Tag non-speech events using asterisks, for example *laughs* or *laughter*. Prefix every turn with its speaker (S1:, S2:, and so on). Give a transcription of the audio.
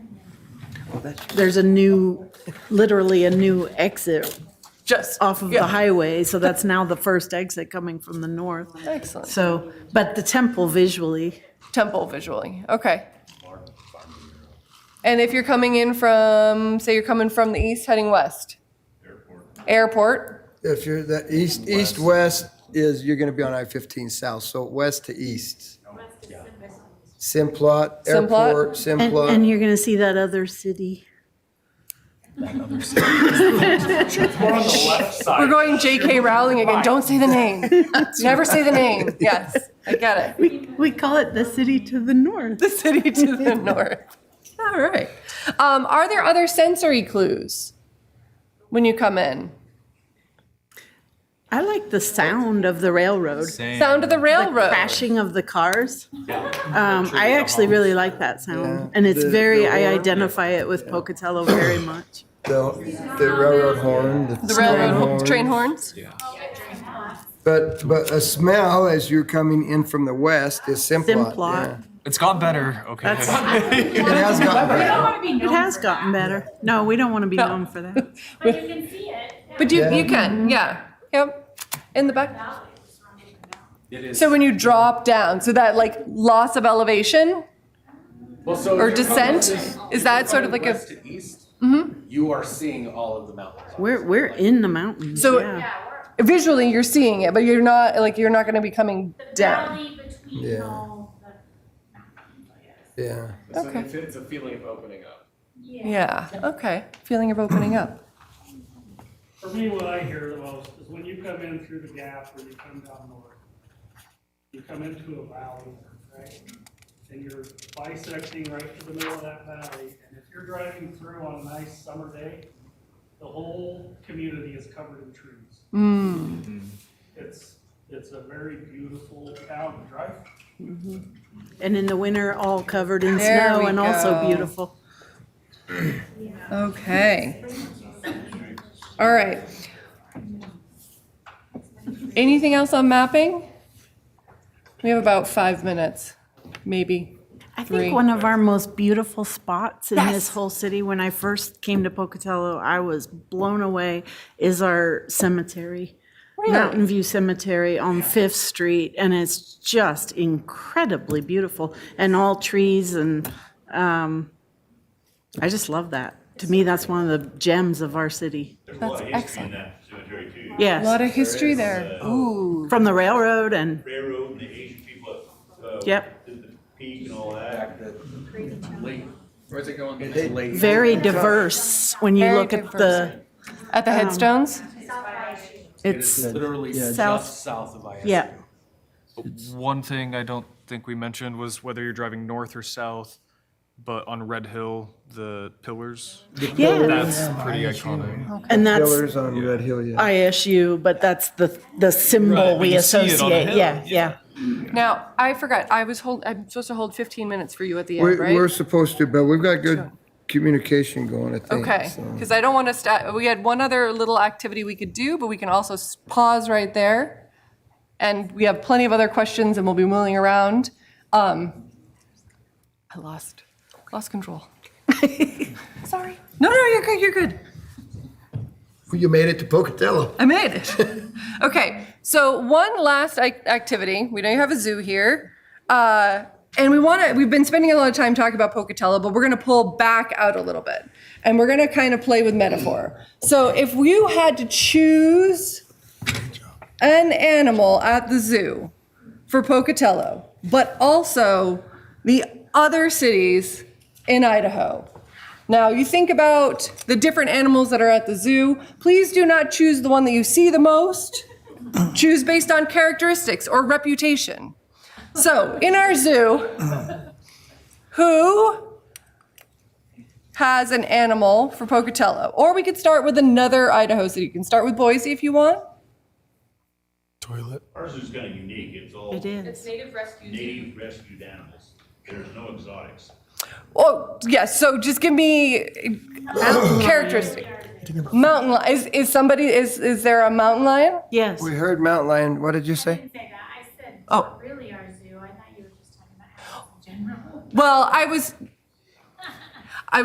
S1: there's a new, literally a new exit
S2: Just
S1: off of the
S2: yeah.
S1: highway, so that's now the first exit coming from the north.
S2: Excellent.
S1: So, but the temple visually,
S2: Temple visually. Okay. And if you're coming in from, say you're coming from the east heading west? Airport.
S3: If you're the east, east, west is, you're gonna be on I-15 south, so west to east. Simplot,
S2: Simplot?
S3: airport,
S1: and, and
S3: Simplot.
S1: you're gonna see that other city.
S2: We're going JK Rowling again. Don't say the *laughs* name. Never say the name. Yes, I get *laughs* it.
S1: We, we call it the city to the north.
S2: The city to the north. All right. Um, are there other sensory clues when you come in?
S1: I like the sound of the railroad,
S2: Sound of the
S1: the
S2: railroad.
S1: crashing of the cars. Um, I actually really like that
S3: Yeah.
S1: sound, and it's
S3: The-
S1: very,
S3: the
S1: I
S3: roar.
S1: identify it with Pocatello very much.
S3: The the railroad horn,
S2: The
S3: the train
S2: railroad
S3: horn.
S2: train horns.
S3: But, but a smell as you're coming in from the west is Simplot. yeah.
S1: Simplot.
S4: It's got better. Okay.
S3: It *laughs* has gotten better.
S5: want to be known
S1: It has
S5: for
S1: gotten better. No, we don't want to be
S2: No.
S1: known for that.
S5: that, But you can see it. yeah.
S2: But you,
S3: Yeah.
S2: you can, yeah. Mm-hmm. Yep. In the back.
S6: It is.
S2: So when you drop down, so that like loss of elevation,
S6: Well, so
S2: or
S6: if you're
S2: descent?
S6: coming west-
S2: Is that
S6: if you're
S2: sort of
S6: coming
S2: like a- Mm-hmm.
S6: west to east? You are seeing all of the mountains.
S1: We're, we're in the mountains.
S2: So-
S1: yeah.
S2: visually you're seeing it, but you're not like you're not going to be coming
S5: The
S2: down.
S5: valley between
S3: Yeah.
S5: all the-
S3: Yeah.
S6: It's a-
S2: Okay.
S6: It's it's a feeling of opening up.
S2: Yeah. Okay. Feeling of opening up.
S7: For me, what I hear the most is when you come in through the gap or you come down north, you come into a valley, right? And you're bisecting right to the middle of that valley, and if you're driving through on a nice summer day, the whole community is covered in trees. It's, it's a very beautiful town to drive through.
S1: And in the winter, all covered in
S2: There
S1: snow
S2: we
S1: and also
S2: go.
S1: beautiful.
S2: Okay. All right. Anything else on mapping? We have about five minutes, maybe.
S1: I
S2: Three.
S1: think one of our most beautiful spots in this
S2: Yes.
S1: whole city, when I first came to Pocatello, I was blown away, is our cemetery. Mountain View Cemetery on Fifth Street, and it's just incredibly beautiful, and all trees, and um, I just love that. To me, that's one of the gems of our city.
S2: That's excellent.
S8: that cemetery too.
S2: A lot
S1: Yes,
S2: of history there. Ooh.
S1: from the railroad and,
S8: Railroad and the Asian people, uh,
S1: Yep.
S8: did the peak and all that.
S6: Where's it going? It's late.
S1: very diverse when you
S2: Very
S1: look at
S2: diverse.
S1: the
S2: At the headstones?
S6: It is
S1: It's,
S6: literally just
S1: South-
S6: south of ISU.
S1: yeah,
S4: *laughs* One thing I don't think we mentioned was whether you're driving north or south, but on Red Hill, the pillars.
S1: yeah,
S4: That's pretty iconic.
S1: and that's
S3: Pillars on Red Hill, yeah.
S1: ISU, but that's the, the symbol
S4: Right,
S1: we
S4: you see it on a
S1: associate,
S4: hill,
S1: yeah, yeah.
S2: Now, I forgot. I was hold, I'm supposed to hold 15 minutes for you at the end,
S3: We're,
S2: right?
S3: we're supposed to, but we've got good communication going, I think.
S2: Okay,
S3: so.
S2: because I don't want to stop, we had one other little activity we could do, but we can also s- pause right there. And we have plenty of other questions and we'll be mulling around. Um, I lost, lost control. Sorry. No, no, you're good, you're good.
S3: You made it to Pocatello.
S2: I made it. *laughs* okay, so one last ac- activity. We know you have a zoo here, uh, and we want to. We've been spending a lot of time talking about Pocatello, but we're going to pull back out a little bit, and we're going to kind of play with metaphor. So, if you had to choose an animal at the zoo for Pocatello, but also the other cities in Idaho, now, you think about the different animals that are at the zoo. Please do not choose the one that you see the most. choose based on characteristics or reputation. So, in our zoo, who has an animal for Pocatello? Or we could start with another Idaho city. You can start with Boise if you want.
S8: Ours is kind of unique. It's all
S1: It is.
S8: native rescued animals. There's no exotics.
S2: Oh, yes. So just give me characteristic. Mountain lion. Is, is somebody, is, is there a mountain lion?
S1: Yes.
S3: We heard mountain lion, what did you
S5: I
S3: say?
S5: didn't say that. I said,
S2: Oh.
S5: really our zoo. I thought you were just talking about animals in general.
S2: Well, I was